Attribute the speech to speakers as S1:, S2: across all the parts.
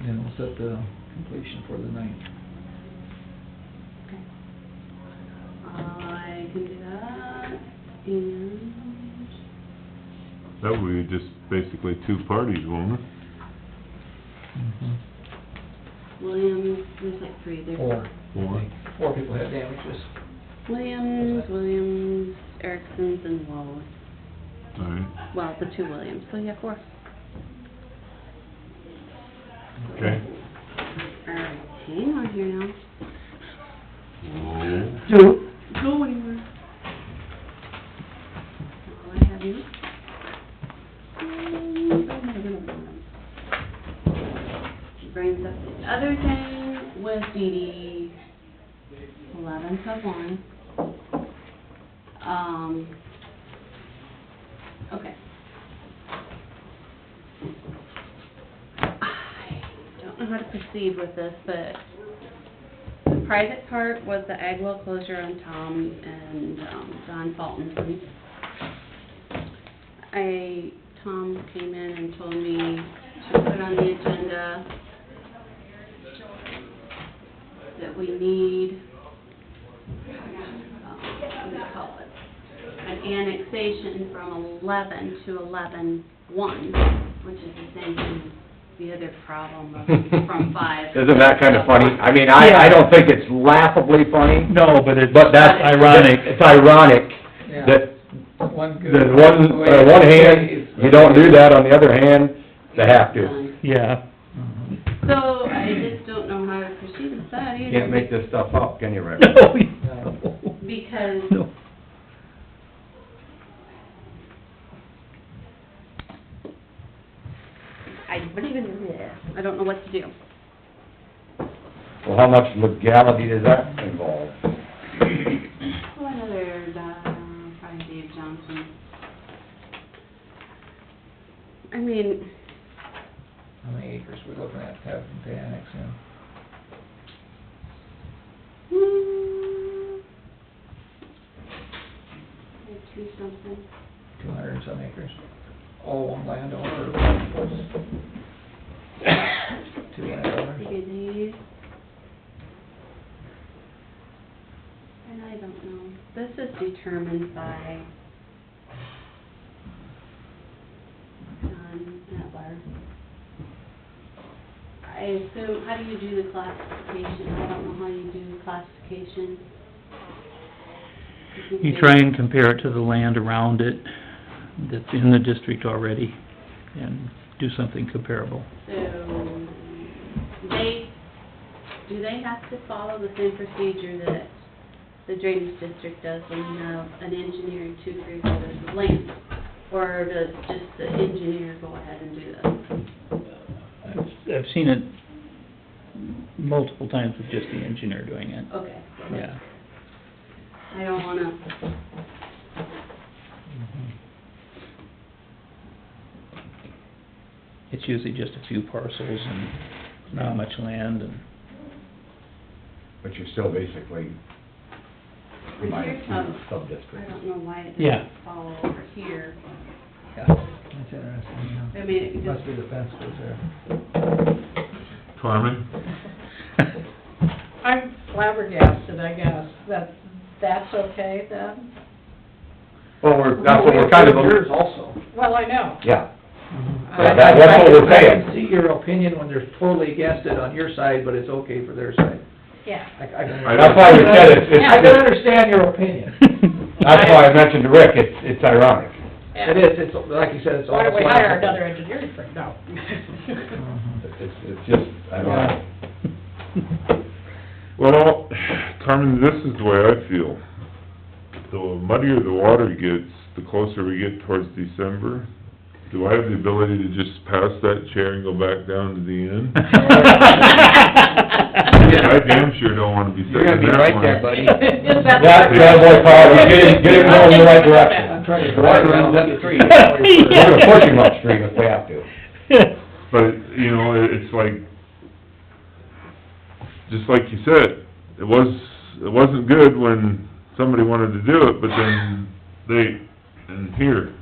S1: and we'll set the completion for the ninth.
S2: I can do that, and,
S3: That would be just basically two parties, won't it?
S2: Williams, there's like three, there's.
S1: Four.
S3: Four.
S1: Four people had damages.
S2: Williams, Williams, Erickson's, and Wallace.
S3: All right,
S2: Well, the two Williams, so yeah, four.
S3: okay.
S2: Alright, hang on here now.
S3: Whoa.
S1: Two.
S2: Go anywhere. That's all I have you. Brings up the other thing with DD eleven sub one. Um, okay. I don't know how to proceed with this, but the private part was the Agwell closure on Tom and, um, Don Fulton Place. I, Tom came in and told me to put on the agenda that we need, um, what do you call it? An annexation from eleven to eleven one, which is the same thing, as the other problem of from five.
S4: Isn't that kinda funny? I mean, I, I don't think it's laughably funny.
S5: No, but it's...
S4: But that's ironic, it's ironic that,
S1: One good.
S4: that one, on one hand, you don't do that, on the other hand, they have to.
S5: Yeah,
S1: Mhm.
S2: So, I just don't know how to proceed with that either.
S4: You can't make this stuff up, can you, Rick?
S5: no, you don't.
S2: Because
S5: no.
S2: I don't even, I don't know what to do.
S4: Well, how much legality does that involve?
S2: Oh, another, uh, probably Dave Johnson. I mean,
S1: How many acres we looking at having to annex in?
S2: hmm. I do something.
S1: Two hundred and some acres? All one landowner, one plus two landowners?
S2: Take it easy. And I don't know, this is determined by John Etler. I assume, how do you do the classification? I don't know how you do the classification. can
S5: You
S2: do-
S5: try and compare it to the land around it that's in the district already, and do something comparable.
S2: So, they, do they have to follow the same procedure that the drainage district does when you have an engineer and two three quarters of land? Or does just the engineer go ahead and do this?
S5: I've, I've seen it multiple times with just the engineer doing it,
S2: Okay. so
S5: yeah.
S2: I don't wanna,
S5: It's usually just a few parcels and not much land, and
S4: But you're still basically minus two
S2: I
S4: sub-districts.
S2: don't know why it
S5: Yeah.
S2: doesn't follow over here.
S1: Yeah, that's interesting,
S2: I mean, it
S1: yeah.
S2: could
S1: Must
S2: just,
S1: be the fence goes there.
S3: Carmen?
S6: I'm flabbergasted, I guess, that, that's okay then?
S4: Well, we're, that's what we're kind of,
S1: Yours also.
S6: Well, I know.
S4: yeah,
S1: I-
S4: Yeah, that- that's what we're
S1: I can
S4: saying.
S1: see your opinion when they're totally against it on your side, but it's okay for their side.
S6: Yeah.
S1: I, I can.
S3: I
S4: that's why we said it's,
S6: Yeah,
S1: I can
S4: it's,
S1: understand your opinion.
S4: that's why I mentioned to Rick, it's, it's ironic.
S1: It is, it's, like you said, it's all.
S6: Why don't we hire another engineering firm? No.
S1: Mhm.
S4: It's, it's just ironic.
S3: Well, Carmen, this is the way I feel. The muddier the water gets, the closer we get towards December. Do I have the ability to just pass that chair and go back down to the end? I damn sure don't wanna be
S4: You're gonna
S3: sitting
S4: be
S3: in that
S4: right
S3: one.
S4: there, buddy.
S6: Is that-
S4: That bad boy car, you're getting, getting going in the right direction.
S1: I'm trying to drive around up the tree.
S4: We're gonna push him upstream if we have to.
S3: But, you know, it- it's like, just like you said, it was, it wasn't good when somebody wanted to do it, but then they, and here,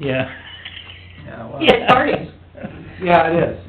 S5: Yeah.
S1: Yeah, well,
S6: Yeah, parties.
S1: yeah, it is.